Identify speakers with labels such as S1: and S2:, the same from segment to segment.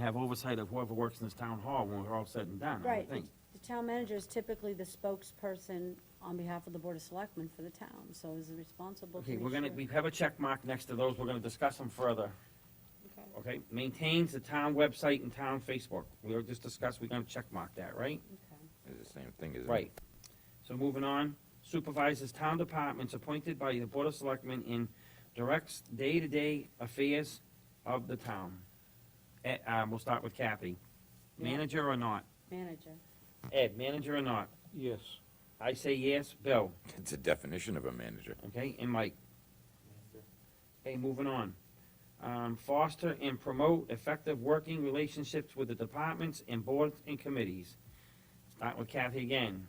S1: have oversight of whoever works in this town hall when we're all said and done, I
S2: Right,
S1: would think.
S2: the town manager is typically the spokesperson on behalf of the Board of Selectmen for the town, so is responsible to
S1: Okay,
S2: make
S1: we're gonna,
S2: sure-
S1: we have a check mark next to those, we're gonna discuss them further,
S2: Okay.
S1: okay? Maintains the town website and town Facebook, we were just discussed, we're gonna check mark that, right?
S2: Okay.
S3: It's the same thing, isn't it?
S1: Right. So moving on, supervises town departments appointed by the Board of Selectmen and directs day-to-day affairs of the town. Eh, uh, we'll start with Kathy. Manager or not?
S2: Manager,
S1: Ed, manager or not?
S4: Yes.
S1: I say yes, Bill,
S3: It's a definition of a manager.
S1: okay, and Mike. Okay, moving on. Um, foster and promote effective working relationships with the departments and boards and committees. Start with Kathy again.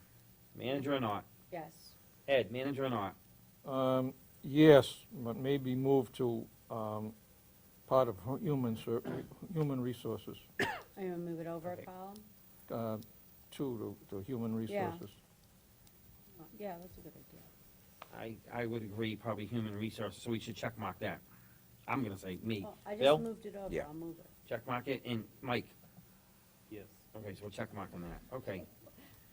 S1: Manager or not?
S2: yes,
S1: Ed, manager or not?
S4: Um, yes, but maybe move to, um, part of hu- human ser, human resources,
S2: I'm gonna move it over
S1: Okay.
S2: a column.
S4: uh, to, to, to human
S2: Yeah.
S4: resources.
S2: Yeah, that's a good idea.
S1: I, I would agree, probably human resources, so we should check mark that. I'm gonna say me.
S2: Well, I
S1: Bill?
S2: just moved it over,
S3: Yeah.
S2: I'll move it.
S1: Check mark it, and Mike.
S5: Yes.
S1: Okay, so we'll check mark on that, okay.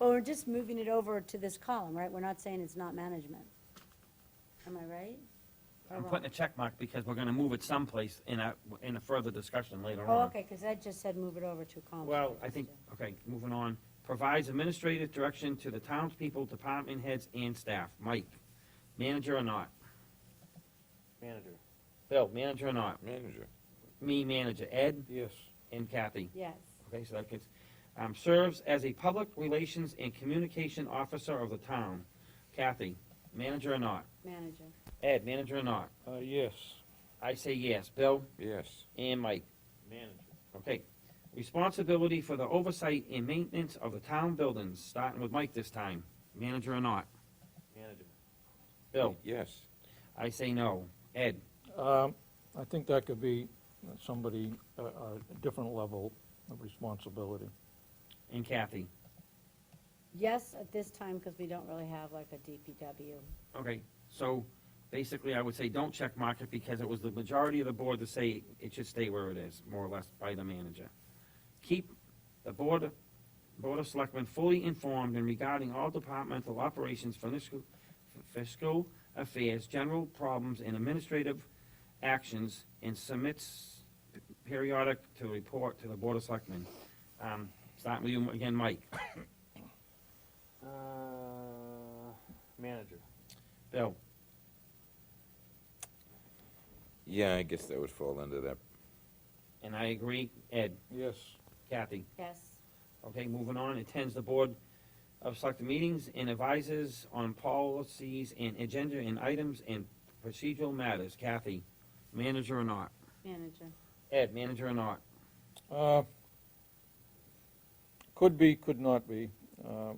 S2: Well, we're just moving it over to this column, right? We're not saying it's not management. Am I right? Or
S1: I'm
S2: wrong?
S1: putting a check mark because we're gonna move it someplace in a, in a further discussion later on.
S2: Oh, okay, because Ed just said move it over to a column.
S1: Well, I think, okay, moving on. Provides administrative direction to the townspeople, department heads, and staff. Mike, manager or not?
S5: Manager.
S1: Bill, manager or not?
S3: Manager.
S1: Me, manager. Ed
S4: Yes.
S1: and Kathy.
S2: Yes,
S1: Okay, so that gets, um, serves as a public relations and communication officer of the town. Kathy, manager or not?
S2: manager,
S1: Ed, manager or not?
S4: Uh, yes,
S1: I say yes. Bill
S3: Yes.
S1: and Mike.
S5: Manager.
S1: Okay. Responsibility for the oversight and maintenance of the town buildings, starting with Mike this time. Manager or not?
S5: Manager.
S1: Bill,
S3: Yes.
S1: I say no. Ed,
S4: um, I think that could be somebody, uh, a different level of responsibility.
S1: and Kathy.
S2: yes at this time, because we don't really have like a DPW.
S1: Okay, so basically I would say don't check mark it because it was the majority of the board to say it should stay where it is, more or less by the manager. Keep the board, board of selectmen fully informed in regarding all departmental operations, fiscal, fiscal affairs, general problems and administrative actions and submits periodic to report to the board of selectmen. Um, starting with you again, Mike,
S5: Uh, manager.
S1: Bill,
S3: Yeah, I guess that would fall under that.
S1: and I agree, Ed,
S4: Yes,
S1: Kathy.
S2: Yes,
S1: Okay, moving on, attends the Board of Select meetings and advises on policies and agenda and items and procedural matters. Kathy, manager or not?
S2: manager,
S1: Ed, manager or not?
S4: uh, could be, could not be, uh,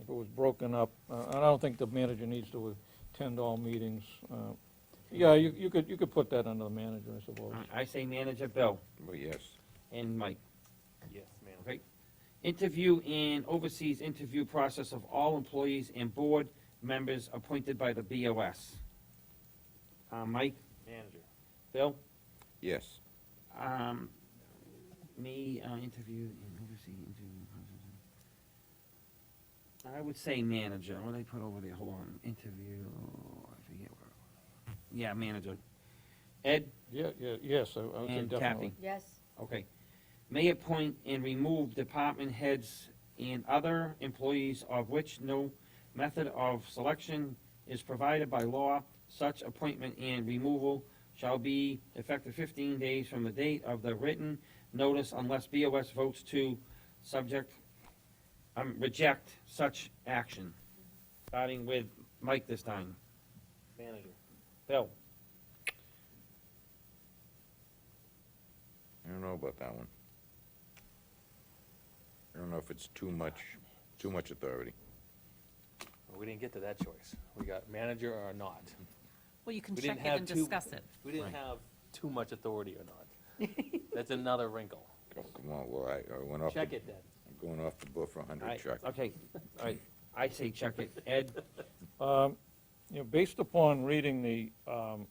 S4: if it was broken up, uh, I don't think the manager needs to attend all meetings, uh, yeah, you, you could, you could put that under the manager, I suppose.
S1: I- I say manager, Bill
S3: Well, yes.
S1: and Mike.
S5: Yes, manager.
S1: Okay. Interview and oversees interview process of all employees and board members appointed by the BOS. Uh, Mike,
S5: Manager.
S1: Bill?
S3: Yes.
S1: Um, me, uh, interview, and oversee interview. I would say manager, what did I put over there, hold on, interview, I forget where. Yeah, manager. Ed
S4: Yeah, yeah, yes, I I would say
S1: and
S4: definitely.
S1: Kathy,
S2: yes,
S1: okay. May appoint and remove department heads and other employees of which no method of selection is provided by law. Such appointment and removal shall be effective 15 days from the date of the written notice unless BOS votes to subject, um, reject such action. Starting with Mike this time.
S5: Manager.
S1: Bill?
S3: I don't know about that one. I don't know if it's too much, too much authority.
S5: Well, we didn't get to that choice. We got manager or not.
S6: Well, you can
S5: We
S6: check
S5: didn't
S6: it
S5: have
S6: and
S5: two-
S6: discuss it.
S5: We didn't
S3: Right.
S5: have too much authority or not. That's another wrinkle.
S3: Oh, come on, well, I, I went off. the-
S5: Check it then.
S3: I'm going off the book for a hundred,
S1: I-
S3: Chuck.
S1: Okay, all right, I say check it. Ed?
S4: Um, You know, based upon reading the, um,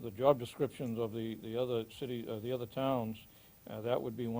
S4: the job descriptions of the, the other city, uh, the other towns, Uh, That would be one